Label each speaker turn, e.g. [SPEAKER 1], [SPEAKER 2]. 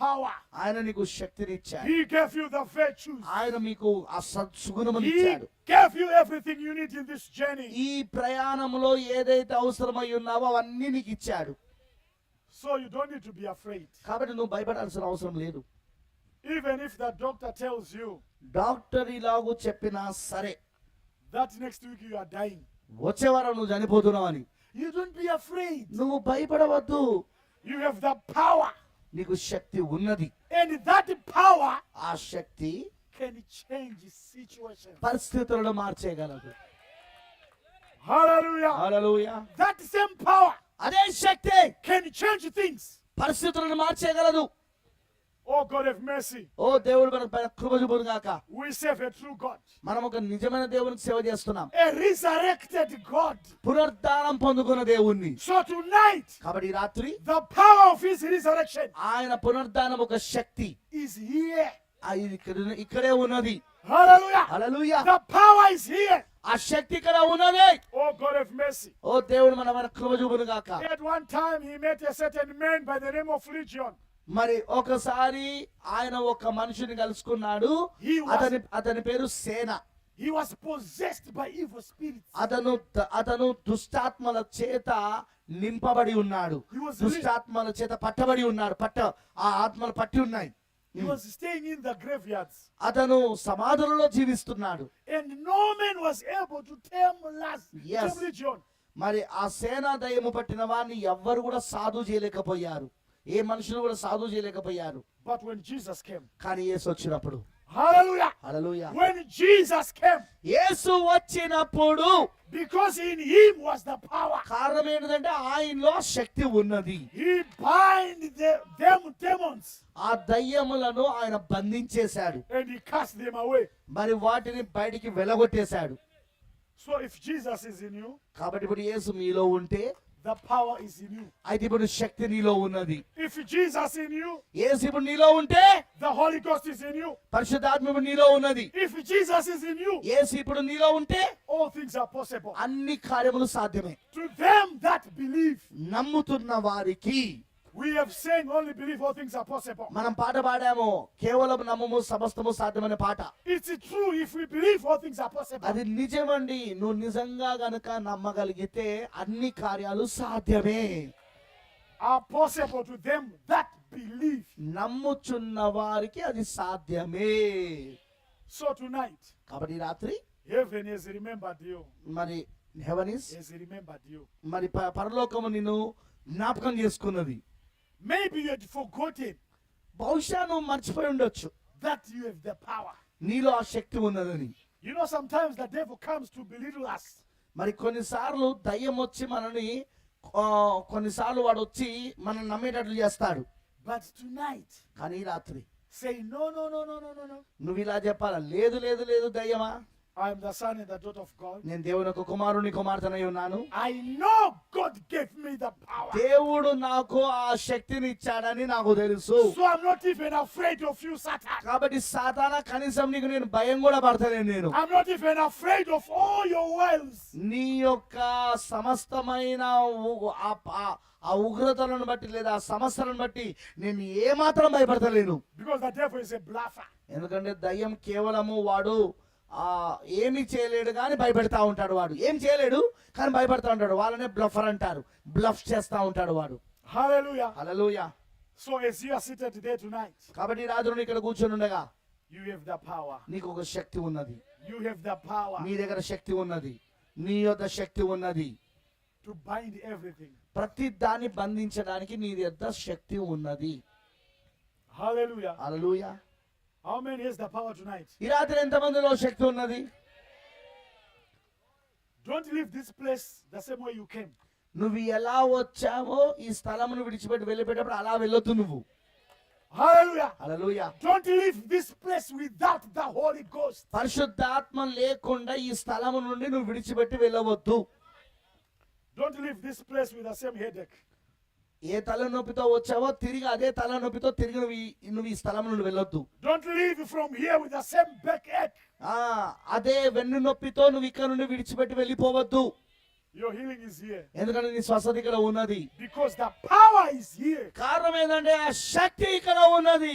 [SPEAKER 1] power.
[SPEAKER 2] ఆయన నీకు శక్తినిచ్చాడు
[SPEAKER 1] He gave you the virtues.
[SPEAKER 2] ఆయన మీకు ఆ సద్సుగుణమును
[SPEAKER 1] He
[SPEAKER 2] ఇచ్చాడు
[SPEAKER 1] gave you everything you need in this journey.
[SPEAKER 2] ఈ ప్రయాణంలో ఏదైతే అవసరమై ఉన్నావో అవన్నీ నీకు ఇచ్చాడు
[SPEAKER 1] So you don't need to be afraid.
[SPEAKER 2] కాబట్టి నువ్వు భయపడాల్సిన అవసరం లేదు
[SPEAKER 1] Even if the doctor tells you
[SPEAKER 2] doctor ఇలాగూ చెప్పినా సరే
[SPEAKER 1] that next week you are dying,
[SPEAKER 2] వచ్చే వారం నువ్వు చనిపోతున్నావు అని
[SPEAKER 1] you don't be afraid.
[SPEAKER 2] నువ్వు భయపడవద్దు
[SPEAKER 1] You have the power,
[SPEAKER 2] నీకు శక్తి ఉన్నది
[SPEAKER 1] and that power
[SPEAKER 2] ఆ శక్తి
[SPEAKER 1] can change situations.
[SPEAKER 2] పరిస్థితులను మార్చేయగలదు
[SPEAKER 1] Hallelujah.
[SPEAKER 2] Hallelujah.
[SPEAKER 1] That same power
[SPEAKER 2] అదే శక్తి
[SPEAKER 1] can change things.
[SPEAKER 2] పరిస్థితులను మార్చేయగలదు
[SPEAKER 1] Oh God have mercy.
[SPEAKER 2] ఓ దేవుడు మన పైన కృప చూపును గాక
[SPEAKER 1] We serve a true God,
[SPEAKER 2] మనం ఒక నిజమైన దేవునికి సేవ చేస్తున్నాం
[SPEAKER 1] a resurrected God.
[SPEAKER 2] పునరుద్ధానం పొందుకున్న దేవుణ్ణి
[SPEAKER 1] So tonight,
[SPEAKER 2] కాబట్టి ఈ రాత్రి
[SPEAKER 1] the power of His resurrection
[SPEAKER 2] ఆయన పునరుద్ధానం ఒక శక్తి
[SPEAKER 1] is here.
[SPEAKER 2] ఆ ఇది ఇక్కడ- ఇక్కడే ఉన్నది
[SPEAKER 1] Hallelujah.
[SPEAKER 2] Hallelujah
[SPEAKER 1] The power is here.
[SPEAKER 2] ఆ శక్తి ఇక్కడ ఉన్నది
[SPEAKER 1] Oh God have mercy.
[SPEAKER 2] ఓ దేవుడు మన మన కృప చూపును గాక
[SPEAKER 1] At one time, He met a certain man by the name of Legion.
[SPEAKER 2] మరి ఒకసారి ఆయన ఒక మనిషిని కలుసుకున్నాడు
[SPEAKER 1] He was-
[SPEAKER 2] అతని అతని పేరు సేన
[SPEAKER 1] He was possessed by evil spirits.
[SPEAKER 2] అతను ద- అతను దుష్టాత్మల చేత నింపబడి ఉన్నాడు
[SPEAKER 1] He was-
[SPEAKER 2] దుష్టాత్మల చేత పట్టబడి ఉన్నాడు పట్ట ఆ ఆత్మలు పట్టి ఉన్నాయి
[SPEAKER 1] He was staying in the graveyards.
[SPEAKER 2] అతను సమాధులలో జీవిస్తున్నాడు
[SPEAKER 1] And no man was able to tame Laz,
[SPEAKER 2] Yes.
[SPEAKER 1] tame Legion.
[SPEAKER 2] మరి ఆ సేనా దయము పట్టిన వారిని ఎవ్వరు కూడా సాధు చేయలేకపోయారు ఏ మనుషులు కూడా సాధు చేయలేకపోయారు
[SPEAKER 1] But when Jesus came,
[SPEAKER 2] కానీ యేసు వచ్చినప్పుడు
[SPEAKER 1] hallelujah.
[SPEAKER 2] Hallelujah
[SPEAKER 1] When Jesus came,
[SPEAKER 2] యేసు వచ్చినప్పుడు
[SPEAKER 1] because in him was the power,
[SPEAKER 2] కారణం ఏంటంటే ఆయనలో శక్తి ఉన్నది
[SPEAKER 1] he bind the, them demons
[SPEAKER 2] ఆ దయ్యములను ఆయన బంధించేశాడు
[SPEAKER 1] and he cast them away.
[SPEAKER 2] మరి వాటిని బయటికి వెలగొట్టేశాడు
[SPEAKER 1] So if Jesus is in you,
[SPEAKER 2] కాబట్టి ఇప్పుడు యేసు మీలో ఉంటే
[SPEAKER 1] the power is in you.
[SPEAKER 2] అయితే ఇప్పుడు శక్తి నీలో ఉన్నది
[SPEAKER 1] If Jesus in you,
[SPEAKER 2] యేసు ఇప్పుడు నీలో ఉంటే
[SPEAKER 1] the Holy Ghost is in you.
[SPEAKER 2] పరిశుద్ధాత్మ ఇప్పుడు నీలో ఉన్నది
[SPEAKER 1] If Jesus is in you,
[SPEAKER 2] యేసు ఇప్పుడు నీలో ఉంటే
[SPEAKER 1] all things are possible.
[SPEAKER 2] అన్ని కార్యములు సాధ్యమే
[SPEAKER 1] To them that believe,
[SPEAKER 2] నమ్ముతున్న వారికి
[SPEAKER 1] we have saying only believe all things are possible.
[SPEAKER 2] మనం పాట పాడాము కేవలం నమ్మము సమస్తము సాధ్యమైన పాట
[SPEAKER 1] It's true if we believe all things are possible.
[SPEAKER 2] అది నిజమండి నువ్వు నిజంగా గనుక నమ్మగలిగితే అన్ని కార్యాలు సాధ్యమే
[SPEAKER 1] Are possible to them that believe.
[SPEAKER 2] నమ్ముచున్న వారికి అది సాధ్యమే
[SPEAKER 1] So tonight,
[SPEAKER 2] కాబట్టి ఈ రాత్రి
[SPEAKER 1] heaven has remembered you.
[SPEAKER 2] మరి హెవనిస్
[SPEAKER 1] Has remembered you.
[SPEAKER 2] మరి ప- పరలోకము నిన్ను జ్ఞాపకం చేసుకున్నది
[SPEAKER 1] Maybe you had forgotten
[SPEAKER 2] బహుశా నువ్వు మర్చిపోయి ఉండొచ్చు
[SPEAKER 1] that you have the power.
[SPEAKER 2] నీలో ఆ శక్తి ఉన్నదని
[SPEAKER 1] You know, sometimes the devil comes to belittle us.
[SPEAKER 2] మరి కొన్నిసార్లు దయ్యం వచ్చి మనని ఆ, కొన్నిసార్లు వాడు వచ్చి మనం నమ్మేటట్లు చేస్తాడు
[SPEAKER 1] But tonight,
[SPEAKER 2] కానీ ఈ రాత్రి
[SPEAKER 1] say, No, no, no, no, no, no, no.
[SPEAKER 2] నువ్వు ఇలా చెప్పాలా లేదు లేదు లేదు దయ్యమా
[SPEAKER 1] I am the son and the daughter of God.
[SPEAKER 2] నేను దేవుని యొక్క కుమారుని కుమార్తెనై ఉన్నాను
[SPEAKER 1] I know God gave me the power.
[SPEAKER 2] దేవుడు నాకు ఆ శక్తిని ఇచ్చాడని నాకు తెలుసు
[SPEAKER 1] So I'm not even afraid of you, Satan.
[SPEAKER 2] కాబట్టి సాధారణ కనీసం నీకు నేను భయం కూడా పడతలేను నేను
[SPEAKER 1] I'm not even afraid of all your wiles.
[SPEAKER 2] నీ యొక్క సమస్తమైన ఉ- ఆ ఆ- ఆ ఉగ్రతలను బట్టి లేదా ఆ సమస్యలను బట్టి నేను ఏమాత్రం భయపడతలేను
[SPEAKER 1] Because the devil is a bluffer.
[SPEAKER 2] ఎందుకంటే దయ్యం కేవలము వాడు ఆ ఏమి చేయలేడు కానీ భయపెడతా ఉంటాడు వాడు ఏం చేయలేడు కానీ భయపడతా ఉంటాడు వాళ్ళనే బ్లఫర్ అంటారు బ్లఫ్ చేస్తా ఉంటాడు వాడు
[SPEAKER 1] Hallelujah.
[SPEAKER 2] Hallelujah
[SPEAKER 1] So as you are seated there tonight,
[SPEAKER 2] కాబట్టి రాజును ఇక్కడ కూర్చొని ఉండగా
[SPEAKER 1] you have the power.
[SPEAKER 2] నీకు ఒక శక్తి ఉన్నది
[SPEAKER 1] You have the power
[SPEAKER 2] నీ దగ్గర శక్తి ఉన్నది నీ యొక్క శక్తి ఉన్నది
[SPEAKER 1] to bind everything.
[SPEAKER 2] ప్రతి దాన్ని బంధించడానికి నీ దగ్గర శక్తి ఉన్నది
[SPEAKER 1] Hallelujah.
[SPEAKER 2] Hallelujah
[SPEAKER 1] How many has the power tonight?
[SPEAKER 2] ఈ రాత్రి ఎంతమందిలో శక్తి ఉన్నది
[SPEAKER 1] Don't leave this place the same way you came.
[SPEAKER 2] నువ్వు ఎలా వచ్చావో ఈ స్థలమును విడిచిపెట్టి వెళ్ళిపోయేటప్పుడు అలా వెళ్ళొద్దు నువ్వు
[SPEAKER 1] Hallelujah.
[SPEAKER 2] Hallelujah
[SPEAKER 1] Don't leave this place without the Holy Ghost.
[SPEAKER 2] పరిశుద్ధాత్మ లేకుండా ఈ స్థలము నుండి నువ్వు విడిచిపెట్టి వెళ్ళవద్దు
[SPEAKER 1] Don't leave this place with the same headache.
[SPEAKER 2] ఏ తలనొప్పితో వచ్చావో తిరిగి అదే తలనొప్పితో తిరిగి నువ్వు ఈ- నువ్వు ఈ స్థలం నుండి వెళ్ళొద్దు
[SPEAKER 1] Don't leave from here with the same backache.
[SPEAKER 2] ఆ, అదే వెన్ను నొప్పితో నువ్వు ఇక్కడ నుండి విడిచిపెట్టి వెళ్ళిపోవద్దు
[SPEAKER 1] Your healing is here
[SPEAKER 2] ఎందుకంటే నీ స్వస్థత ఇక్కడ ఉన్నది
[SPEAKER 1] because the power is here.
[SPEAKER 2] కారణం ఏంటంటే ఆ శక్తి ఇక్కడ ఉన్నది